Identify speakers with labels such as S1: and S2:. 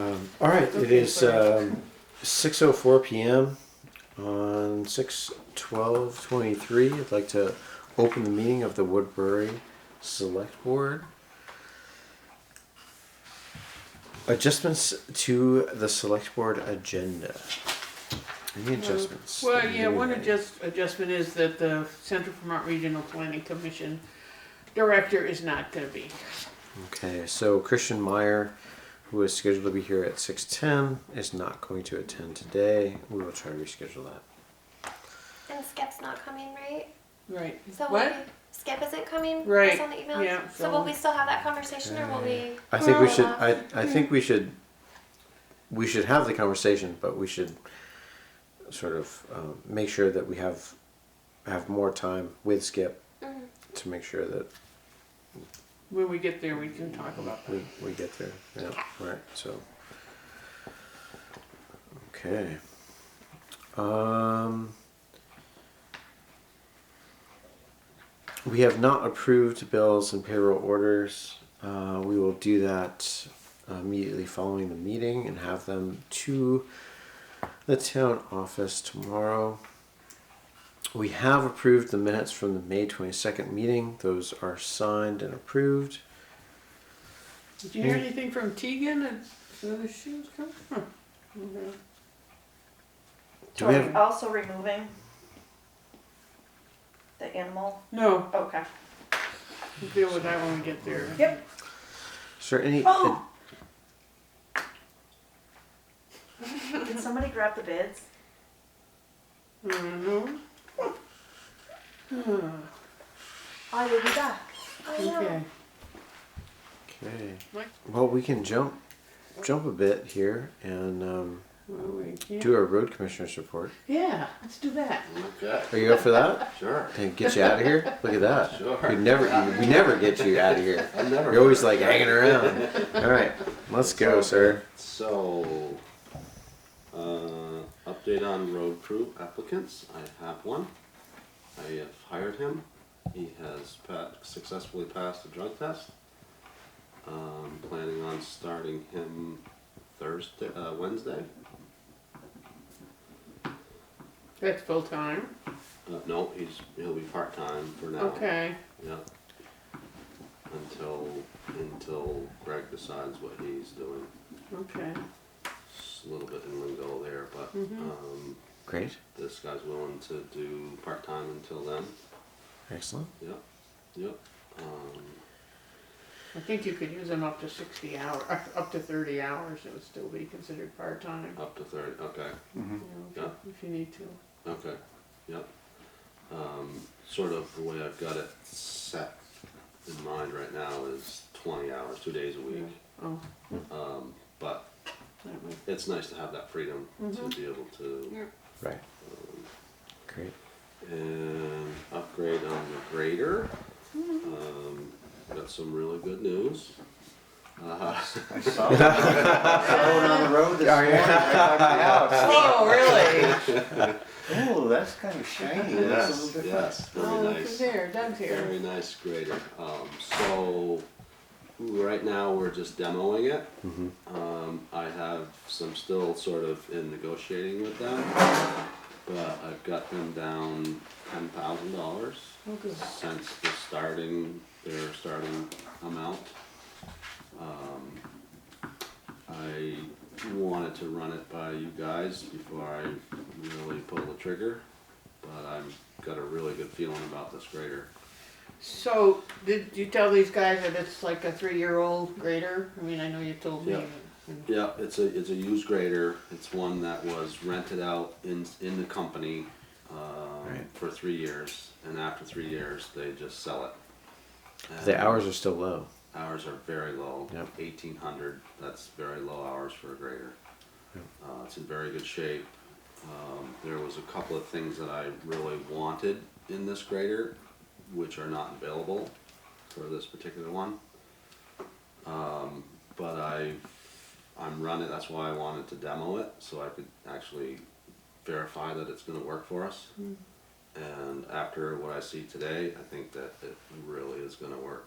S1: All right, it is um, 6.04 p.m. on 6.12.23. I'd like to open the meeting of the Woodbury Select Board. Adjustments to the Select Board agenda. Any adjustments?
S2: Uh, Well,
S1: that
S2: yeah,
S1: you
S2: one
S1: made?
S2: adjust, adjustment is that the Central Vermont Regional Planning Commission director is not gonna be.
S1: Okay, so Christian Meyer, who is scheduled to be here at 6.10, is not going to attend today. We will try to reschedule that.
S3: And Skip's not coming, right?
S2: Right.
S3: So will
S2: What?
S3: we- Skip isn't coming.
S2: Right,
S3: Based on the emails.
S2: yeah,
S3: So,
S2: so-
S3: will we still have that conversation, or will we?
S1: I think we
S3: Well-
S1: should. I, I think we should. We should have the conversation, but we should sort of um, make sure that we have have more time with Skip to make sure that
S2: When we get there, we can talk about that.
S1: we, we get there. Yeah. Right. So. Okay. Um. We have not approved bills and payroll orders. Uh, we will do that immediately following the meeting and have them to the town office tomorrow. We have approved the minutes from the May 22nd meeting. Those are signed and approved.
S2: Did you hear anything from Tegan and whether she was coming? Huh. Okay.
S1: Do
S4: So
S1: we
S4: are we
S1: have-
S4: also removing the animal?
S2: No,
S4: Okay.
S2: we'll deal with that when we get there.
S4: Yep.
S1: Is there any?
S4: Oh. Did somebody grab the bids?
S2: Mhm. Huh.
S4: I will be back.
S3: I know.
S2: Okay.
S1: Okay.
S2: What?
S1: Well, we can jump, jump a bit here and um,
S2: Well, we can't-
S1: do our road commissioner's report.
S2: Yeah, let's do that.
S5: Okay,
S1: Are you up for that?
S5: sure.
S1: And get you out of here? Look at that.
S5: Sure.
S1: We never, we never get you out of here.
S5: I never.
S1: You're always like hanging around. All right, let's go, sir.
S5: So, uh, update on road crew applicants. I have one. I have hired him. He has pa- successfully passed the drug test. Um, planning on starting him Thursday, uh, Wednesday.
S2: That's full time.
S5: Uh, no, he's he'll be part time for now.
S2: Okay.
S5: Yeah. Until until Greg decides what he's doing.
S2: Okay.
S5: It's a little bit in lingo there, but
S2: Mm-hmm.
S5: um,
S1: Great,
S5: this guy's willing to do part time until then.
S1: excellent.
S5: Yep, yep. Um,
S2: I think you could use them up to sixty hour, up- up to thirty hours, it would still be considered part-time,
S5: up to thirty. Okay,
S2: you know,
S5: uh,
S2: if you- if you need to.
S5: okay, yep. Um, sort of the way I've got it set in mind right now is twenty hours, two days a week.
S2: Oh,
S5: Um, but
S2: that might,
S5: it's nice to have that freedom to be able to.
S2: Mm-hmm. Yeah.
S1: Right. Great.
S5: and upgrade on the grader.
S2: Mm-hmm.
S5: Um, got some really good news. Uh,
S6: I saw it. Going on the road this
S5: Oh,
S6: morning, right
S4: Oh, really?
S6: by my house. Ooh, that's kind of shiny. That's a
S5: yes,
S6: little different.
S5: yes, very
S2: oh, look at
S5: nice,
S2: there, Doug's here.
S5: very nice grader. Um, so right now we're just demoing it.
S1: Mm-hmm.
S5: Um, I have some still sort of in negotiating with them, but I've got them down ten thousand dollars.
S2: Oh, good.
S5: since the starting, their starting amount. Um, I wanted to run it by you guys before I really pull the trigger, but I've got a really good feeling about this grader.
S2: So, did you tell these guys that it's like a three-year-old grader? I mean, I know you told me.
S5: Yeah. Yeah, it's a, it's a used grader, it's one that was rented out in, in the company, um,
S1: Right.
S5: for three years, and after three years, they just sell it.
S1: The
S5: And-
S1: hours are still low.
S5: Hours are very low.
S1: Yep.
S5: Eighteen hundred, that's very low hours for a grader.
S1: Yep.
S5: Uh, it's in very good shape. Um, there was a couple of things that I really wanted in this grader, which are not available for this particular one. Um, but I, I'm running, that's why I wanted to demo it, so I could actually verify that it's gonna work for us. And after what I see today, I think that it really is gonna work.